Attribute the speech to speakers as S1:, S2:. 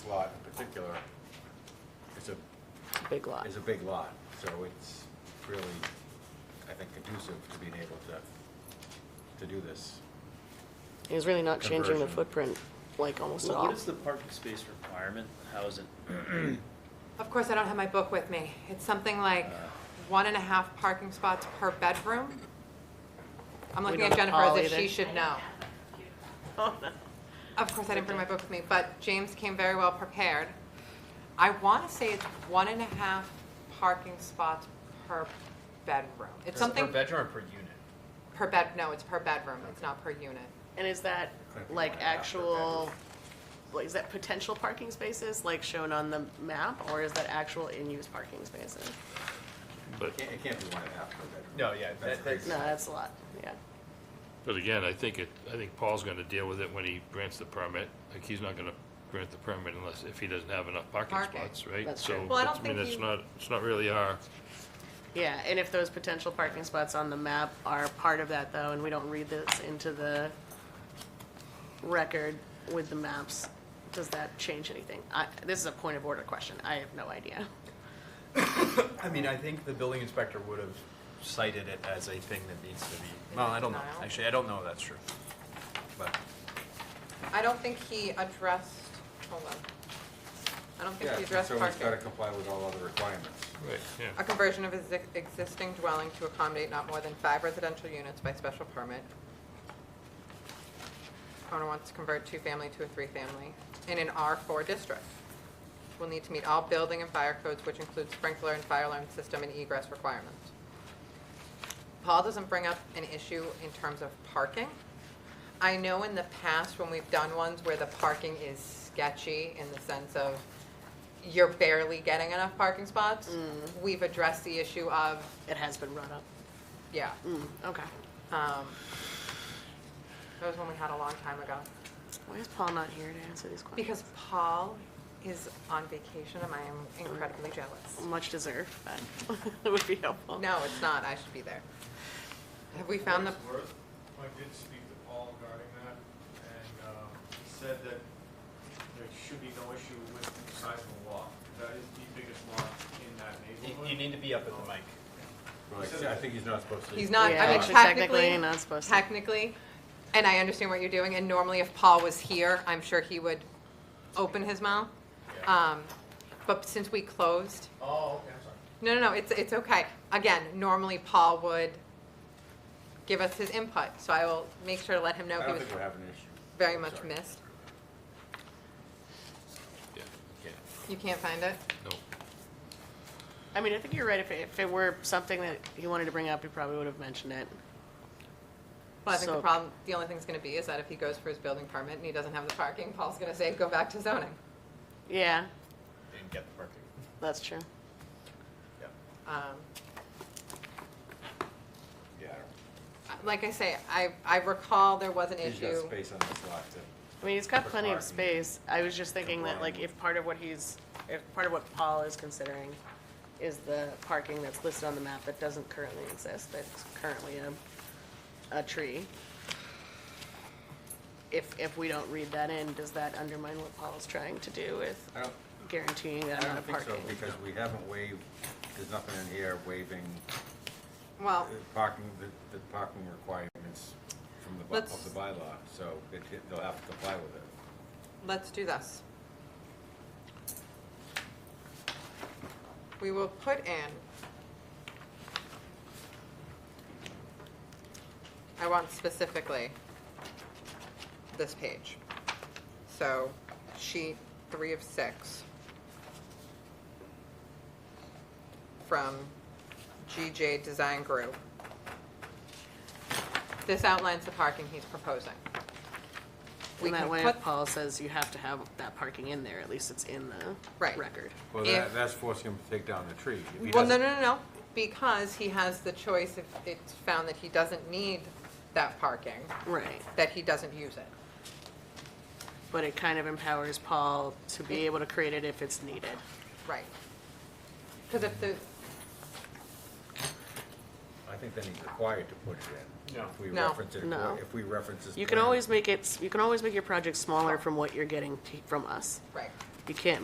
S1: lot in particular is a,
S2: Big lot.
S1: is a big lot, so it's really, I think, conducive to being able to, to do this.
S2: It's really not changing the
S1: Conversion.
S2: footprint, like, almost at
S3: So what
S2: all.
S3: is the parking space requirement? How is it?
S4: Of course, I don't have my book with me. It's something like one and a half parking spots per bedroom. I'm
S2: We
S4: looking
S2: don't
S4: at
S2: have
S4: Jennifer as
S2: all
S4: if she
S2: either.
S4: should know. Of course, I didn't bring my book with me, but James came very well prepared. I want to say it's one and a half parking spots per bedroom. It's something,
S5: Per bedroom or per unit?
S4: per bed, no, it's per bedroom, it's not per unit.
S2: And is that, like, actual, like, is that potential parking spaces, like, shown on the map? Or is that actual in-use parking spaces?
S6: But,
S1: It can't, it can't be one and a half per bedroom.
S5: No, yeah, that-
S1: That's-
S2: No, that's a lot, yeah.
S6: but again, I think it, I think Paul's gonna deal with it when he grants the permit. Like, he's not gonna grant the permit unless, if he doesn't have enough parking
S4: Parking.
S6: spots, right?
S2: That's
S6: So,
S2: true.
S4: Well, I
S6: it's-
S4: don't
S6: mean,
S4: think
S6: it's
S4: he-
S6: not, it's not really our,
S2: Yeah, and if those potential parking spots on the map are part of that, though, and we don't read this into the record with the maps, does that change anything? I, this is a point of order question, I have no idea.
S5: I mean, I think the building inspector would have cited it as a thing that needs to be, well, I don't know.
S4: Denial?
S5: Actually, I don't know if that's true. But
S4: I don't think he addressed, hold on. I don't think
S1: Yeah,
S4: he addressed
S1: so
S4: parking.
S1: it's gotta comply with all other requirements.
S6: right, yeah.
S4: A conversion of exi- existing dwelling to accommodate not more than five residential units by special permit. Owner wants to convert two-family to a three-family in an R4 district. Will need to meet all building and fire codes, which include sprinkler and fire alarm system and egress requirements. Paul doesn't bring up an issue in terms of parking. I know in the past, when we've done ones where the parking is sketchy in the sense of you're barely getting enough parking spots, we've addressed the issue of,
S2: It has been brought up.
S4: yeah.
S2: Mm, okay.
S4: um, That was one we had a long time ago.
S2: Why is Paul not here to answer these questions?
S4: Because Paul is on vacation and I am incredibly jealous.
S2: Much deserved, but it would be helpful.
S4: No, it's not, I should be there. Have we found the,
S7: Worth, I did speak to Paul regarding that, and um, he said that there should be no issue with the size of the lot. That is the biggest lot in that
S5: you,
S7: neighborhood.
S5: you need to be up at the mic.
S1: Like, I think he's not supposed to.
S4: he's not,
S2: Yeah,
S4: I mean,
S2: actually,
S4: technically,
S2: not supposed to.
S4: technically, and I understand what you're doing, and normally if Paul was here, I'm sure he would open his mouth. Um, But since we closed,
S7: Oh, okay, I'm sorry.
S4: No, no, no, it's, it's okay. Again, normally Paul would give us his input, so I will make sure to let him know
S1: I
S4: he
S1: don't
S4: was
S1: think we're having an issue.
S4: very much
S1: Sorry.
S4: missed.
S6: Yeah, yeah,
S4: You can't find it?
S6: no.
S2: I mean, I think you're right, if, it- if it were something that he wanted to bring up, he probably would have mentioned it.
S4: Well, I think the
S2: So-
S4: problem, the only thing's gonna be is that if he goes for his building permit and he doesn't have the parking, Paul's gonna say, go back to zoning.
S2: Yeah,
S5: Didn't get the parking.
S2: that's true.
S5: Yeah.
S4: Um,
S1: Yeah, I don't-
S4: Like I say, I, I recall there was an
S1: he's got
S4: issue.
S1: space on this lot to.
S2: I mean, he's got plenty of
S1: Parking.
S2: space. I was just thinking that, like,
S1: Combined.
S2: if part of what he's, if part of what Paul is considering is the parking that's listed on the map that doesn't currently exist, that's currently a, a tree. If, if we don't read that in, does that undermine what Paul's trying to do with
S1: I don't,
S2: guaranteeing that
S1: I
S2: amount
S1: don't
S2: of
S1: think
S2: parking?
S1: so, because we haven't waived, there's nothing in here waiving
S4: Well,
S1: the parking, the, the parking requirements from the, bu-
S4: Let's-
S1: of the bylaw, so it, it- they'll have to comply with it.
S4: let's do this. We will put in. I want specifically this page. So sheet three of six. From GJ Design Group. This outlines the parking he's proposing. We
S2: In that
S4: can
S2: way,
S4: put
S2: if Paul says you have to have that parking in there, at least it's in the
S4: Right.
S2: record.
S1: Well,
S4: If-
S1: that, that's forcing him to take down the tree. If he
S4: Well, no,
S1: doesn't-
S4: no, no, no, because he has the choice if it's found that he doesn't need that parking,
S2: Right.
S4: that he doesn't use it.
S2: But it kind of empowers Paul to be able to create it if it's needed.
S4: Right. Because if the,
S1: I think then he's required to put it in.
S7: No.
S1: If we
S4: No.
S1: reference it,
S2: No.
S1: if we reference this.
S2: You can
S1: plan.
S2: always make it, you can always make your project smaller from what you're getting t- from us.
S4: right,
S2: you can't